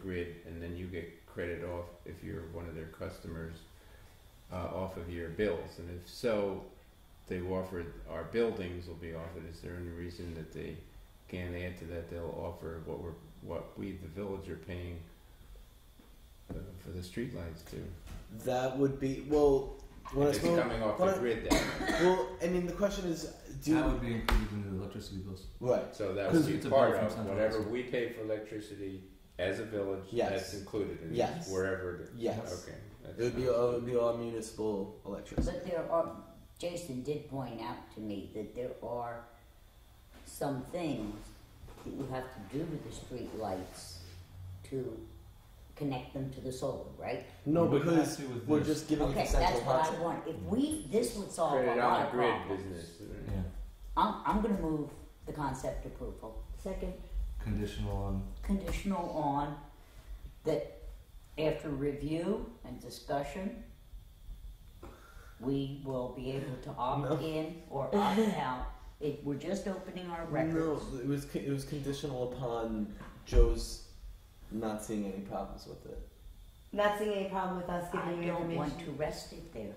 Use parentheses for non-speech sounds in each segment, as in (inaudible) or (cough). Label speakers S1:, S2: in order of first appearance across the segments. S1: grid, and then you get credit off if you're one of their customers uh, off of your bills. And if so, they offered our buildings will be offered. Is there any reason that they can't add to that? They'll offer what we're what we the village are paying uh, for the streetlights too.
S2: That would be well. When I
S1: if it's
S2: spoke,
S1: coming off
S2: when
S1: the
S2: I-
S1: grid, then.
S2: well, I mean, the question is, do
S3: that would be included in the electricity bills.
S2: right?
S1: So that
S3: 'Cause
S1: would
S3: it's
S1: be
S3: a
S1: part
S3: bill from
S1: of
S3: Central
S1: whatever
S3: Hudson.
S1: we pay for electricity as a village.
S2: Yes.
S1: That's included in
S2: Yes.
S1: this, wherever. The,
S2: Yes,
S1: Okay. that's
S2: it would be.
S1: fine.
S2: All, it would be all municipal electricity.
S4: But there are, Jason did point out to me that there are some things that you have to do with the street lights to connect them to the solar, right?
S2: No,
S3: We wouldn't
S2: because
S3: have to with
S2: we're
S3: this.
S2: just giving it
S4: Okay,
S2: to
S4: that's
S2: central
S4: what I
S2: Hudson.
S4: want. If we, this would solve a
S1: Credit on
S4: lot
S1: the
S4: of
S1: grid
S4: problems.
S1: business. right?
S3: Yeah,
S4: I'm, I'm gonna move the concept approval,
S5: Second.
S3: conditional on
S4: conditional on that after review and discussion, we will be able to opt in or opt out. It, we're just opening our
S2: No,
S4: records.
S2: it was con- it was conditional upon Joe's not seeing any problems with it.
S5: Not seeing any problem with us
S4: I
S5: giving you
S4: don't want to
S5: information.
S4: rest it there.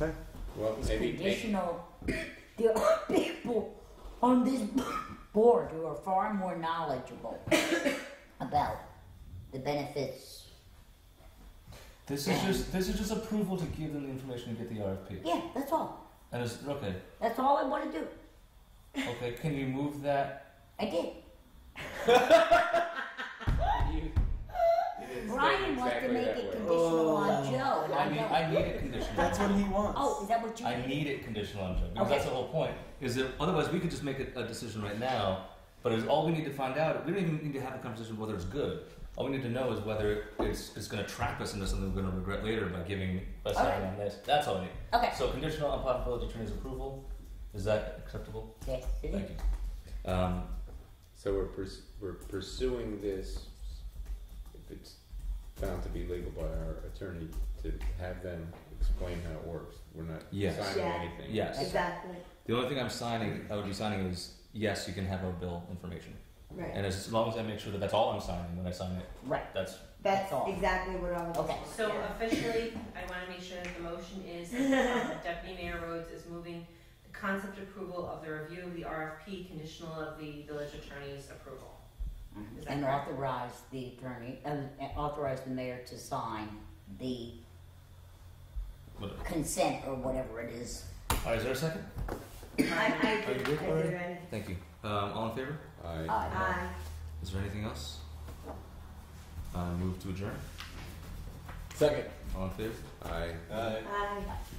S2: Okay.
S1: Well,
S4: It's
S1: maybe.
S4: conditional. There are (laughs) people on this (laughs) board who are far more knowledgeable about the benefits.
S3: This is just this is just approval to give them the information to get the RFP.
S4: Yeah, that's all.
S3: And it's okay.
S4: That's all I want to do.
S3: Okay, can you move that?
S4: I did.
S1: You- you didn't say
S4: Brian wants to
S1: exactly
S4: make
S1: that
S4: it
S1: way.
S4: conditional
S2: Oh.
S4: on Joe, and
S3: I
S4: I
S3: mean,
S4: don't.
S3: I need it conditional.
S2: That's what he wants.
S4: Oh, is that what you?
S3: I need it conditional on Joe because
S4: Okay.
S3: that's the whole point. Is that otherwise we could just make a, a decision right now, but it's all we need to find out. We don't even need to have a conversation of whether it's good. All we need to know is whether it's it's going to trap us into something we're going to regret later by giving by signing on this. That's all we need.
S4: Okay.
S3: So conditional upon village attorney's approval. Is that acceptable?
S4: Yes, it
S3: Thank
S4: is.
S3: you. Um,
S1: So we're pers- we're pursuing this. If it's found to be legal by our attorney, to have them explain how it works. We're not
S3: Yes.
S1: signing
S5: Yeah.
S1: anything.
S3: Yes.
S5: Exactly.
S3: The only thing I'm signing, I would be signing is yes, you can have our bill information.
S5: Right.
S3: And as long as I make sure that that's all I'm signing when I sign it,
S4: Right.
S3: that's
S5: That's
S4: all.
S5: exactly what I was.
S4: Okay.
S6: So officially, I want to make sure that the motion is that Deputy Mayor Rhodes is moving the concept approval of the review of the RFP conditional of the village attorney's approval. Is
S3: Mm-hmm.
S6: that
S4: And
S6: correct?
S4: authorize the attorney, uh, authorize the mayor to sign the
S3: whatever.
S4: consent or whatever it is.
S3: All right, is there a second?
S5: I, I
S3: Are you
S5: did.
S3: good
S5: I
S3: for
S5: did
S3: it?
S5: ready.
S3: Thank you. Um, all in favor?
S1: I,
S4: Aye.
S5: Aye.
S3: Is there anything else? Uh, move to adjourn.
S2: Second.
S3: All in favor?
S1: I
S2: Uh,
S5: Aye.